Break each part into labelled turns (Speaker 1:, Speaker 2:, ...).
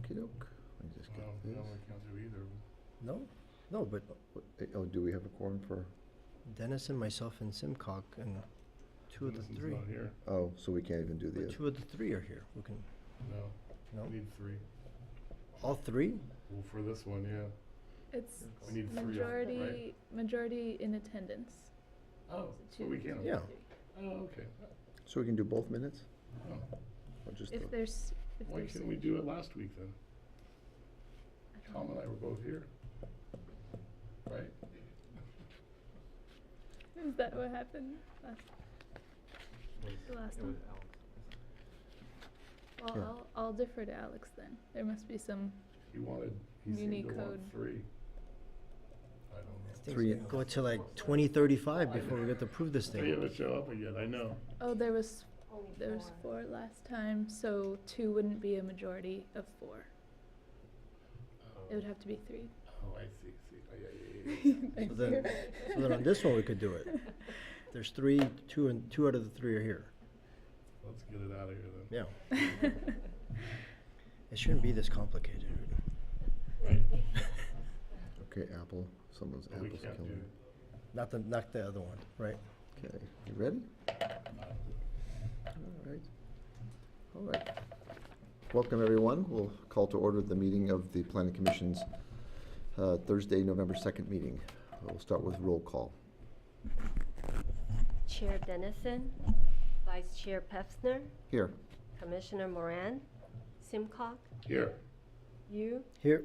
Speaker 1: Okey doke. Let me just
Speaker 2: Well,
Speaker 1: get
Speaker 2: that
Speaker 1: this.
Speaker 2: would count through either.
Speaker 3: No, no, but
Speaker 1: What- eh, Oh, do we have a quorum for,
Speaker 3: Dennis and myself and Simcock and two of the
Speaker 2: Dennison's
Speaker 3: three.
Speaker 2: not here,
Speaker 1: oh, so we can't even do
Speaker 3: But
Speaker 1: the,
Speaker 3: two of the three are here. We can,
Speaker 2: no,
Speaker 3: no,
Speaker 2: we need three.
Speaker 3: all three?
Speaker 2: Well, for this one, yeah.
Speaker 4: It's
Speaker 2: We need three, of- right?
Speaker 4: majority, majority in attendance.
Speaker 2: Oh,
Speaker 4: So
Speaker 2: so we can.
Speaker 3: Yeah.
Speaker 2: Oh, okay.
Speaker 1: so we can do both minutes?
Speaker 2: Oh,
Speaker 1: Or just,
Speaker 4: If
Speaker 1: the-
Speaker 4: there's, if
Speaker 2: Why
Speaker 4: there's.
Speaker 2: couldn't we do it last week then?
Speaker 4: I
Speaker 2: Tom
Speaker 4: don't
Speaker 2: and
Speaker 4: know.
Speaker 2: I were both here. Right?
Speaker 4: Is that what happened last, the last one?
Speaker 1: Yeah.
Speaker 4: Well, I'll, I'll defer to Alex then. There must be some,
Speaker 2: He wanted, he seemed to
Speaker 4: Unicode.
Speaker 2: want three. I don't
Speaker 1: Three.
Speaker 3: Go to like twenty thirty-five before we get to prove this
Speaker 2: know. They
Speaker 3: thing.
Speaker 2: haven't show up yet, I know.
Speaker 4: oh, there was, there was four last time, so two wouldn't be a majority of four. It would have to be three.
Speaker 2: Oh, I see, see, oh, yeah, yeah, yeah, yeah.
Speaker 3: So then, so then on this one, we could do it. There's three, two and, two out of the three are here.
Speaker 2: Let's get it out of here then.
Speaker 3: Yeah. It shouldn't be this complicated.
Speaker 2: Right.
Speaker 1: okay, Apple, someone's
Speaker 2: But we
Speaker 1: Apple's
Speaker 2: can't
Speaker 1: killing.
Speaker 2: do,
Speaker 1: me.
Speaker 3: Not the, not the other one, right?
Speaker 1: Okay, you ready? All right. All right. Welcome, everyone. We'll call to order the meeting of the Planning Commission's uh, Thursday, November 2nd meeting. We'll start with roll call.
Speaker 5: Chair Dennison, Vice Chair Pefner,
Speaker 1: Here.
Speaker 5: Commissioner Moran, Simcock,
Speaker 2: here,
Speaker 5: you,
Speaker 3: Here,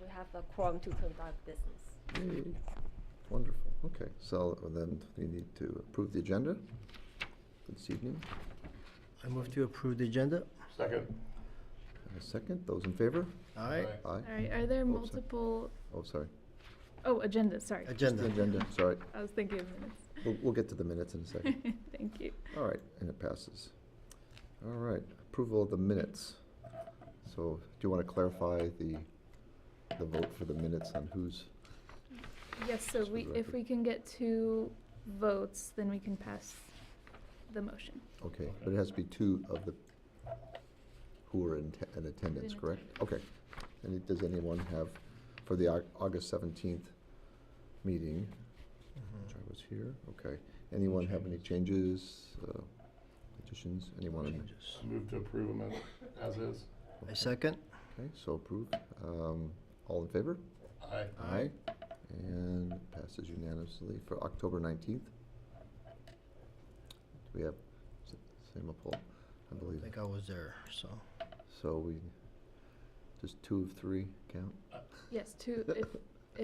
Speaker 5: we have a quorum to conduct business.
Speaker 1: Yay. Wonderful. Okay, so then we need to approve the agenda for this evening.
Speaker 3: I move to approve the agenda.
Speaker 2: second.
Speaker 1: And a second. Those in favor?
Speaker 3: Aye.
Speaker 2: Aye.
Speaker 1: Aye.
Speaker 4: All right, are there
Speaker 1: sorry.
Speaker 4: multiple,
Speaker 1: Oh, sorry.
Speaker 4: oh, agendas, sorry.
Speaker 1: The
Speaker 3: Agenda.
Speaker 1: Agenda, sorry.
Speaker 4: I was thinking of minutes.
Speaker 1: We'll, we'll get to the minutes in a second.
Speaker 4: Thank you.
Speaker 1: All right, and it passes. All right, approval of the minutes. So do you want to clarify the, the vote for the minutes on who's?
Speaker 4: Yes, so
Speaker 1: Just for
Speaker 4: we,
Speaker 1: the
Speaker 4: if
Speaker 1: record.
Speaker 4: we can get two votes, then we can pass the motion.
Speaker 1: Okay, but it has to be two of the, who are in, te- in attendance,
Speaker 4: In
Speaker 1: correct? Okay. And does anyone have, for the Au- August seventeenth meeting, which
Speaker 3: Mm-hmm.
Speaker 1: I was here, okay. Anyone have any changes, uh, additions, anyone? in-
Speaker 3: Changes.
Speaker 2: Move to approve them as, as is.
Speaker 3: I second.
Speaker 1: Okay, so approved. Um, all in favor?
Speaker 2: Aye.
Speaker 1: Aye. And passes unanimously for October 19th. Do we have s- same poll? I
Speaker 3: I
Speaker 1: believe.
Speaker 3: think I was there, so.
Speaker 1: So we, just two of three count?
Speaker 4: Yes, two, if,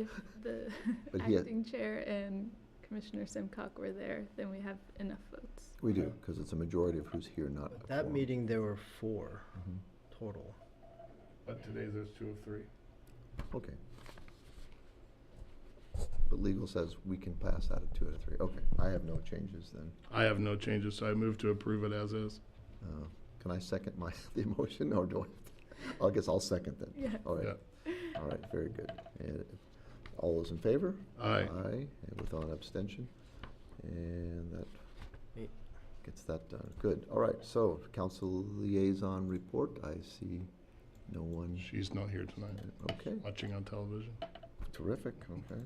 Speaker 4: if the
Speaker 1: But he had-
Speaker 4: acting chair and Commissioner Simcock were there, then we have enough votes.
Speaker 1: We do, because it's a majority of who's here, not.
Speaker 3: At
Speaker 1: a
Speaker 3: that
Speaker 1: quorum.
Speaker 3: meeting, there were four
Speaker 1: Mhm.
Speaker 3: total.
Speaker 2: But today there's two of three.
Speaker 1: Okay. But legal says we can pass out of two out of three. Okay, I have no changes then.
Speaker 2: I have no changes, so I move to approve it as is.
Speaker 1: Uh, Can I second my, the motion, or do I? I guess I'll second then.
Speaker 4: Yeah.
Speaker 1: All right, all right, very good. And all those in favor?
Speaker 2: Aye.
Speaker 1: Aye, and without abstention. And that
Speaker 3: Neat.
Speaker 1: gets that done. Good, all right, so council liaison report, I see no one.
Speaker 2: She's not here tonight,
Speaker 1: Okay,
Speaker 2: watching on television.
Speaker 1: terrific, okay.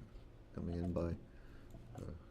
Speaker 1: Coming in by uh,